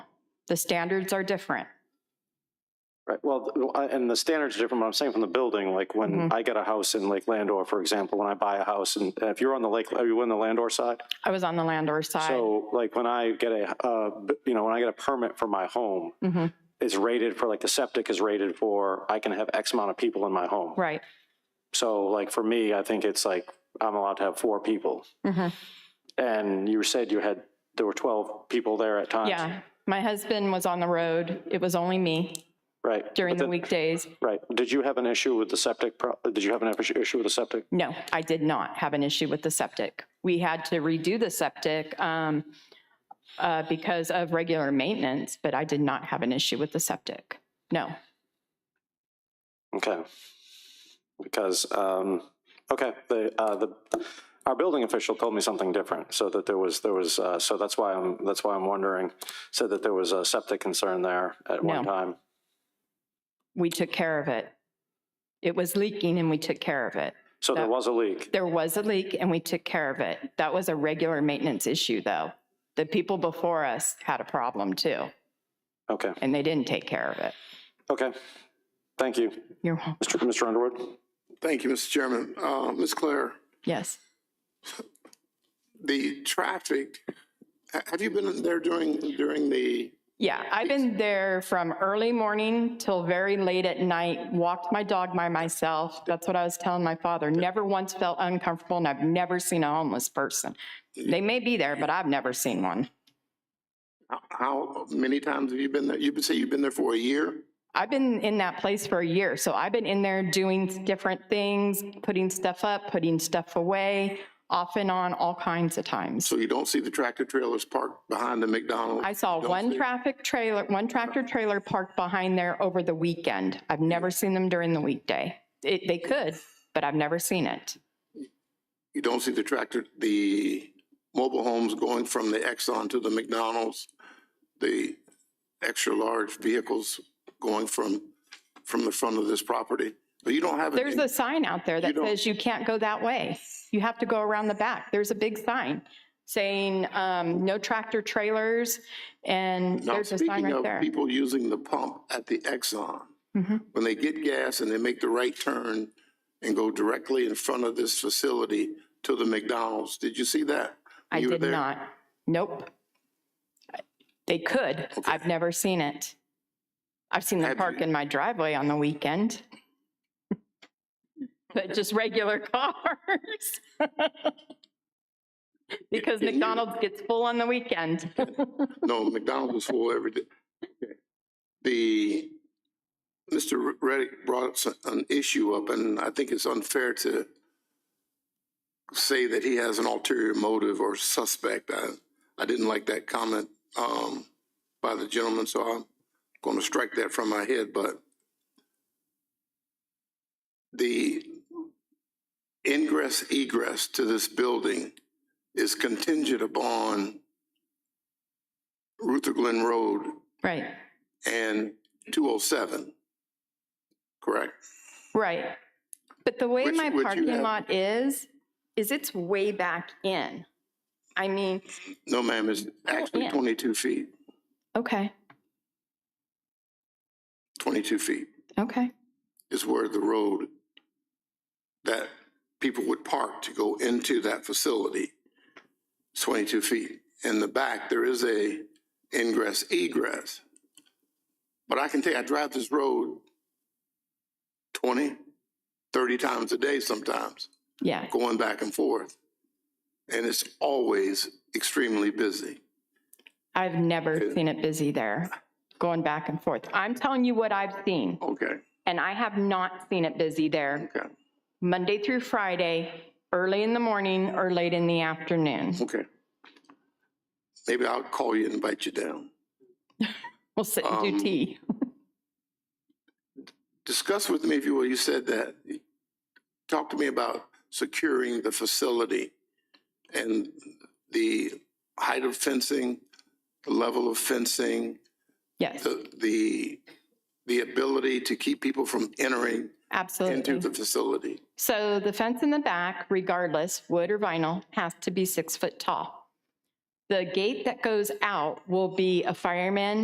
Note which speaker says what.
Speaker 1: The standards are different.
Speaker 2: Right, well, th- I- and the standards are different, but I'm saying from the building, like
Speaker 1: Mm-hmm.
Speaker 2: when I get a house in Lake Landor, for example, when I buy a house, and and if you're on the lake, are you on the Landor side?
Speaker 1: I was on the landlord's side.
Speaker 2: So like when I get a, uh, b- you know, when I get a permit for my home,
Speaker 1: Mhm.
Speaker 2: it's rated for, like the septic is rated for, I can have X amount of people in my home.
Speaker 1: Right.
Speaker 2: So like for me, I think it's like, I'm allowed to have four people.
Speaker 1: Mhm.
Speaker 2: And you said you had, there were 12 people there at times.
Speaker 1: Yeah. My husband was on the road. It was only me
Speaker 2: Right.
Speaker 1: during
Speaker 2: But
Speaker 1: the
Speaker 2: then-
Speaker 1: weekdays.
Speaker 2: Right. Did you have an issue with the septic? pro- Did you have an issue with the septic?
Speaker 1: No, I did not have an issue with the septic. We had to redo the septic um, uh, because of regular maintenance, but I did not have an issue with the septic. No.
Speaker 2: Okay. Because, um, okay, the, uh, the, our building official told me something different, so that there was, there was, uh, so that's why I'm, that's why I'm wondering, said that there was a septic concern there at one
Speaker 1: No.
Speaker 2: time.
Speaker 1: we took care of it. It was leaking and we took care of it.
Speaker 2: So there
Speaker 1: That-
Speaker 2: was a leak.
Speaker 1: There was a leak and we took care of it. That was a regular maintenance issue, though. The people before us had a problem too,
Speaker 2: Okay,
Speaker 1: and they didn't take care of it.
Speaker 2: okay. Thank you.
Speaker 1: You're welcome.
Speaker 2: Mr. Mr. Underwood?
Speaker 3: Thank you, Mr. Chairman. Uh, Ms. Claire,
Speaker 1: Yes.
Speaker 3: the traffic, ha- have you been there during, during the,
Speaker 1: Yeah, I've been there from early morning till very late at night, walked my dog by myself. That's what I was telling my father. Never once felt uncomfortable, and I've never seen a homeless person. They may be there, but I've never seen one.
Speaker 3: how- how many times have you been there? You would say you've been there for a year?
Speaker 1: I've been in that place for a year, so I've been in there doing different things, putting stuff up, putting stuff away, off and on, all kinds of times.
Speaker 3: So you don't see the tractor trailers parked behind the McDonald's?
Speaker 1: I saw one traffic trailer, one tractor trailer parked behind there over the weekend. I've never seen them during the weekday. It, they could, but I've never seen it.
Speaker 3: You don't see the tractor, the mobile homes going from the Exxon to the McDonald's? The extra-large vehicles going from, from the front of this property? But you don't have.
Speaker 1: There's a sign out there that
Speaker 3: don't-
Speaker 1: says you can't go that way. You have to go around the back. There's a big sign saying, um, no tractor trailers, and
Speaker 3: Now,
Speaker 1: there's a sign right
Speaker 3: Speaking of
Speaker 1: there.
Speaker 3: people using the pump at the Exxon,
Speaker 1: Mhm.
Speaker 3: when they get gas and they make the right turn and go directly in front of this facility to the McDonald's, did you see that?
Speaker 1: I
Speaker 3: You were
Speaker 1: did
Speaker 3: there?
Speaker 1: not. Nope. They could. I've never seen it. I've seen them
Speaker 3: Have
Speaker 1: park
Speaker 3: you-
Speaker 1: in my driveway on the weekend. But just regular cars. Because
Speaker 3: Can you-
Speaker 1: McDonald's gets full on the weekend.
Speaker 3: No, McDonald's was full every day. The, Mr. Reddick brought s- an issue up, and I think it's unfair to say that he has an ulterior motive or suspect. I, I didn't like that comment, um, by the gentleman, so I'm going to strike that from my head, but the ingress egress to this building is contingent upon Ruther Glen Road
Speaker 1: Right,
Speaker 3: and 207, correct?
Speaker 1: right. But the way
Speaker 3: Which-
Speaker 1: my
Speaker 3: would you
Speaker 1: parking
Speaker 3: have-
Speaker 1: lot is, is it's way back in. I mean,
Speaker 3: No, ma'am, it's actually
Speaker 1: yeah.
Speaker 3: 22 feet,
Speaker 1: okay,
Speaker 3: 22 feet
Speaker 1: okay.
Speaker 3: is where the road that people would park to go into that facility, It's 22 feet. In the back, there is a ingress egress. But I can tell you, I drive this road 20, 30 times a day sometimes.
Speaker 1: Yeah,
Speaker 3: going back and forth. And it's always extremely busy.
Speaker 1: I've never seen it busy there, going back and forth. I'm telling you what I've seen,
Speaker 3: Okay,
Speaker 1: and I have not seen it busy there,
Speaker 3: okay,
Speaker 1: Monday through Friday, early in the morning or late in the afternoon.
Speaker 3: okay. Maybe I'll call you and invite you down.
Speaker 1: We'll sit and do
Speaker 3: Um,
Speaker 1: tea.
Speaker 3: Discuss with me, if you will, you said that, talk to me about securing the facility and the height of fencing, the level of fencing,
Speaker 1: Yes,
Speaker 3: the, the, the ability to keep people from entering into
Speaker 1: absolutely.
Speaker 3: the facility.
Speaker 1: So the fence in the back, regardless, wood or vinyl, has to be six foot tall. The gate that goes out will be a fireman